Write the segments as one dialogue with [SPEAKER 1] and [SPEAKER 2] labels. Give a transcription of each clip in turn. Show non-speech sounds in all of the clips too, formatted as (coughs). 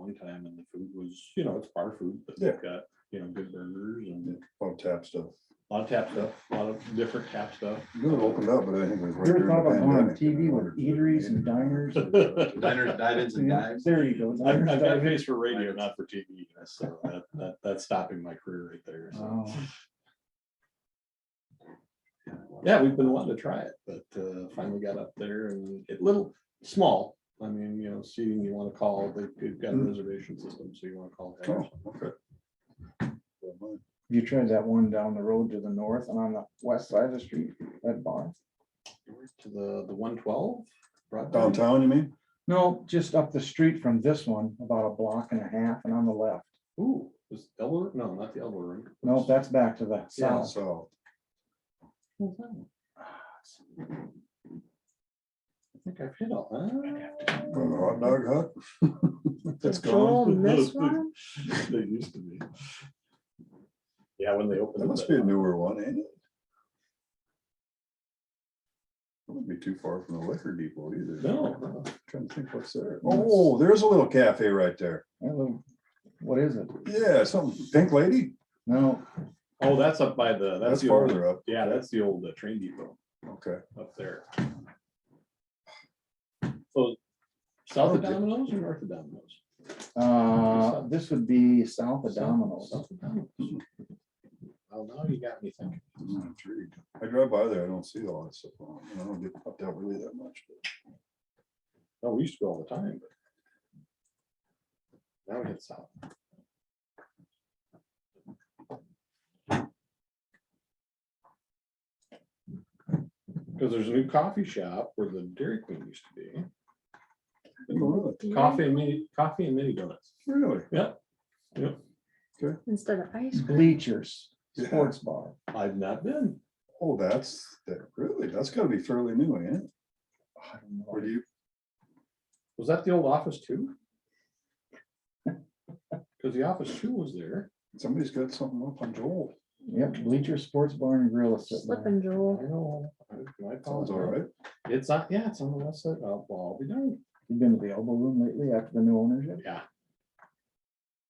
[SPEAKER 1] family time and the food was, you know, it's bar food, but
[SPEAKER 2] Yeah.
[SPEAKER 1] they've got, you know, good burgers and
[SPEAKER 2] on Oh, tap stuff.
[SPEAKER 1] a lot of tap stuff, a lot of different tap stuff.
[SPEAKER 2] (laughs) You know, it opened up, but I think it was. right
[SPEAKER 3] You ever
[SPEAKER 2] during the
[SPEAKER 3] thought about going on
[SPEAKER 2] pandemic, you
[SPEAKER 3] TV
[SPEAKER 2] know,
[SPEAKER 3] with
[SPEAKER 2] or-
[SPEAKER 3] eateries and diners?
[SPEAKER 4] Diners, dive-ins and
[SPEAKER 3] Yeah,
[SPEAKER 4] dives.
[SPEAKER 3] There you go.
[SPEAKER 1] I've, I've got a
[SPEAKER 3] Diners,
[SPEAKER 1] face for radio, not for TV, so that, that, that's stopping my career right there. so.
[SPEAKER 3] Oh.
[SPEAKER 1] Yeah, we've been wanting to try it, but uh, finally got up there and it little, small. I mean, you know, seating you want to call, they- they've got a reservation system, so you want to call. ahead.
[SPEAKER 2] Oh, okay.
[SPEAKER 3] You tried that one down the road to the north and on the west side of the street, that bar?
[SPEAKER 1] To the, the one twelve.
[SPEAKER 2] Downtown, you mean?
[SPEAKER 3] No, just up the street from this one, about a block and a half and on the left.
[SPEAKER 1] Ooh, was Elbow, no, not the Elbow Room.
[SPEAKER 3] No, that's back to the
[SPEAKER 1] Yeah.
[SPEAKER 3] south.
[SPEAKER 2] So,
[SPEAKER 1] I think I've hit all.
[SPEAKER 2] uh,
[SPEAKER 1] that.
[SPEAKER 2] hot dog hut? That's
[SPEAKER 5] Joel
[SPEAKER 1] (laughs)
[SPEAKER 2] gone.
[SPEAKER 5] missed one?
[SPEAKER 1] They used to be. Yeah, when they opened.
[SPEAKER 2] That
[SPEAKER 1] it,
[SPEAKER 2] must be
[SPEAKER 1] that-
[SPEAKER 2] a newer one, ain't it? That wouldn't be too far from the liquor depot either.
[SPEAKER 1] No, no.
[SPEAKER 2] Trying to think what's there. Oh, there's a little cafe right there.
[SPEAKER 3] That little- What is it?
[SPEAKER 2] Yeah, something, Pink Lady,
[SPEAKER 3] No,
[SPEAKER 1] oh, that's up by the, that's
[SPEAKER 2] that's
[SPEAKER 1] the old,
[SPEAKER 2] farther up.
[SPEAKER 1] yeah, that's the old uh, train depot
[SPEAKER 2] Okay.
[SPEAKER 1] up there. So south of
[SPEAKER 2] Oh, yeah.
[SPEAKER 1] Domino's or north of Domino's?
[SPEAKER 3] uh, this would be south of
[SPEAKER 1] South-
[SPEAKER 3] Domino's.
[SPEAKER 1] south of Domino's. Well, now you got me thinking.
[SPEAKER 2] I'm not intrigued. I drive by there, I don't see all that stuff. on it, and I don't get popped out really that much. but-
[SPEAKER 1] No, we used to go all the time. but Now we hit south. Because there's a new coffee shop where the Dairy Queen used to be.
[SPEAKER 2] Oh, Really?
[SPEAKER 1] Coffee and mini, coffee and mini donuts.
[SPEAKER 2] Really?
[SPEAKER 5] Instead of
[SPEAKER 3] Mm,
[SPEAKER 5] ice cream.
[SPEAKER 3] Bleachers,
[SPEAKER 2] Yeah.
[SPEAKER 3] sports bar.
[SPEAKER 1] I've not been.
[SPEAKER 2] Oh, that's, that, really? That's gotta be fairly new, ain't it?
[SPEAKER 3] I don't know.
[SPEAKER 2] Or do you,
[SPEAKER 1] Was that the old office too? (laughs) Because the office two was there.
[SPEAKER 2] somebody's got something up on Joel.
[SPEAKER 3] Yep, Bleachers Sports Bar and Grill is sitting there.
[SPEAKER 5] Slipping
[SPEAKER 1] I
[SPEAKER 5] Joel.
[SPEAKER 1] know. I- my
[SPEAKER 2] Sounds all
[SPEAKER 1] apologies.
[SPEAKER 2] right.
[SPEAKER 1] It's not, yeah, it's on the west side. Oh, well, I'll be darned.
[SPEAKER 3] You been to the Elbow Room lately after the new ownership?
[SPEAKER 1] Yeah.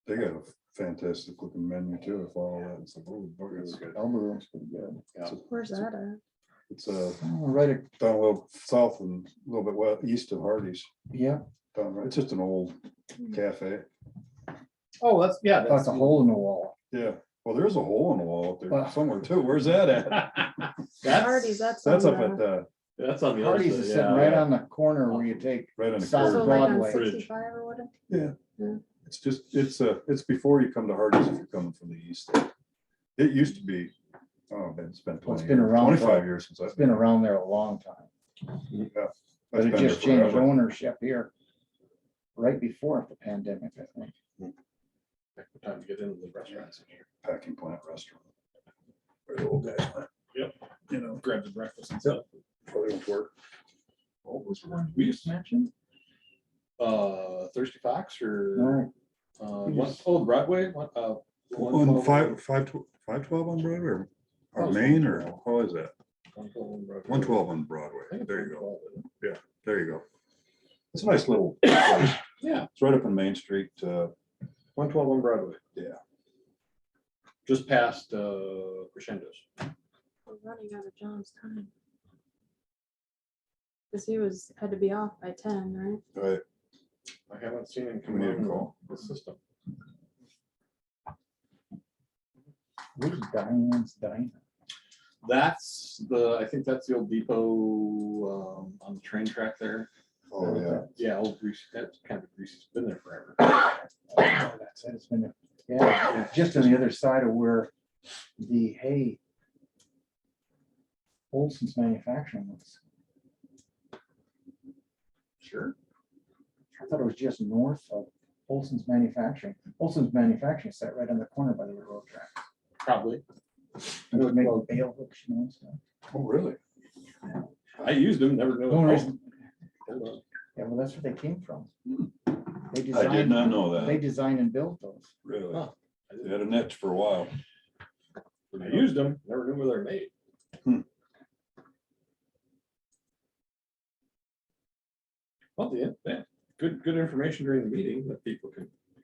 [SPEAKER 2] They got a fantastic looking menu too, if all that. It's like, oh, boy, it's-
[SPEAKER 3] Elbow Room's pretty good.
[SPEAKER 2] it's a-
[SPEAKER 5] Where's that at?
[SPEAKER 2] It's uh
[SPEAKER 3] Oh, Right, ac-
[SPEAKER 2] down a little south and a little bit west, east of Hardee's.
[SPEAKER 3] yeah,
[SPEAKER 2] Down, right- it's just an old cafe.
[SPEAKER 1] Oh, that's, yeah.
[SPEAKER 3] that's a
[SPEAKER 1] the-
[SPEAKER 3] hole in the wall.
[SPEAKER 2] Yeah, well, there's a hole in the wall up there
[SPEAKER 3] Wow.
[SPEAKER 2] somewhere too. Where's that
[SPEAKER 1] (laughs)
[SPEAKER 2] at?
[SPEAKER 5] Hardee's,
[SPEAKER 1] That's,
[SPEAKER 5] that's.
[SPEAKER 2] That's
[SPEAKER 5] on
[SPEAKER 2] up at,
[SPEAKER 5] the-
[SPEAKER 2] uh,
[SPEAKER 1] that's on the other
[SPEAKER 3] Hardee's
[SPEAKER 1] side,
[SPEAKER 3] is
[SPEAKER 1] yeah, oh,
[SPEAKER 3] sitting right
[SPEAKER 1] yeah.
[SPEAKER 3] on the corner where you take,
[SPEAKER 2] right on the
[SPEAKER 3] South.
[SPEAKER 5] So
[SPEAKER 2] curve.
[SPEAKER 5] like on
[SPEAKER 3] Broadway.
[SPEAKER 5] sixty-five or whatever.
[SPEAKER 2] It's just, it's uh it's before you come to Hardee's if you're coming from the east. It used to be, oh, it's been
[SPEAKER 3] Well, it's
[SPEAKER 2] twenty,
[SPEAKER 3] been
[SPEAKER 2] years-
[SPEAKER 3] around for-
[SPEAKER 2] twenty-five years since I've
[SPEAKER 3] it's been around there a long time, but
[SPEAKER 2] That's
[SPEAKER 3] it
[SPEAKER 2] been
[SPEAKER 3] just
[SPEAKER 2] there
[SPEAKER 3] changed
[SPEAKER 2] forever.
[SPEAKER 3] ownership here. Right before the pandemic, I think.
[SPEAKER 1] Time to get into the restaurants.
[SPEAKER 2] Packing plant restaurant. Where the old guys went.
[SPEAKER 1] Yep.
[SPEAKER 2] You know.
[SPEAKER 1] Grab the breakfast and stuff.
[SPEAKER 2] Probably won't work. All those were-
[SPEAKER 3] We just mentioned.
[SPEAKER 1] Uh, Thirsty Fox or,
[SPEAKER 3] No,
[SPEAKER 1] uh,
[SPEAKER 3] we
[SPEAKER 1] one,
[SPEAKER 3] just-
[SPEAKER 1] oh, the Broadway, one, uh. one
[SPEAKER 2] On
[SPEAKER 1] twelve-
[SPEAKER 2] five, five, tw- five twelve on Broadway or,
[SPEAKER 1] Oh,
[SPEAKER 2] or
[SPEAKER 1] it's
[SPEAKER 2] Main or how is that?
[SPEAKER 1] one twelve on Broadway.
[SPEAKER 2] One twelve on
[SPEAKER 1] I think
[SPEAKER 2] Broadway.
[SPEAKER 1] it's
[SPEAKER 2] There you go.
[SPEAKER 1] 112, isn't it?
[SPEAKER 2] There you go. It's a nice little, place.
[SPEAKER 1] Yeah,
[SPEAKER 2] it's right up on Main Street. Uh,
[SPEAKER 1] one twelve on Broadway.
[SPEAKER 2] Yeah.
[SPEAKER 1] Just past, uh, Crescendos.
[SPEAKER 5] We're running out of John's time. Cause he was, had to be off by ten, right?
[SPEAKER 2] right,
[SPEAKER 1] I haven't seen him
[SPEAKER 2] We
[SPEAKER 1] come
[SPEAKER 2] need a
[SPEAKER 1] on
[SPEAKER 2] call.
[SPEAKER 1] the system.
[SPEAKER 3] Where's Diane's Diner?
[SPEAKER 1] That's the, I think that's the old depot, um, on the train track there.
[SPEAKER 2] oh, yeah.
[SPEAKER 1] Yeah, old greasy, that's kind of greasy, it's been there
[SPEAKER 2] (coughs)
[SPEAKER 1] forever.
[SPEAKER 3] Oh, That's it, it's been, yeah, just on the other side of where the hay. Olson's manufacturing was.
[SPEAKER 1] Sure.
[SPEAKER 3] I thought it was just north of Olson's Manufacturing. Olson's Manufacturing sat right on the corner by the railroad track.
[SPEAKER 1] Probably.
[SPEAKER 3] They would make
[SPEAKER 1] Well-
[SPEAKER 3] bale hooks, you know, and stuff.
[SPEAKER 2] Oh, really?
[SPEAKER 1] I used them, never
[SPEAKER 3] The only
[SPEAKER 1] knew.
[SPEAKER 3] reason- Hmm.
[SPEAKER 1] Hold on.
[SPEAKER 3] Yeah, well, that's where they came from. They
[SPEAKER 2] I did
[SPEAKER 3] designed,
[SPEAKER 2] not know
[SPEAKER 3] they
[SPEAKER 2] that,
[SPEAKER 3] designed and built those.
[SPEAKER 2] really.
[SPEAKER 1] Huh. I
[SPEAKER 2] They
[SPEAKER 1] didn't-
[SPEAKER 2] had a niche for a while.
[SPEAKER 1] I used them, never knew where they're made.
[SPEAKER 2] Hmm.
[SPEAKER 1] Well, yeah, yeah, good, good information during the meeting that people can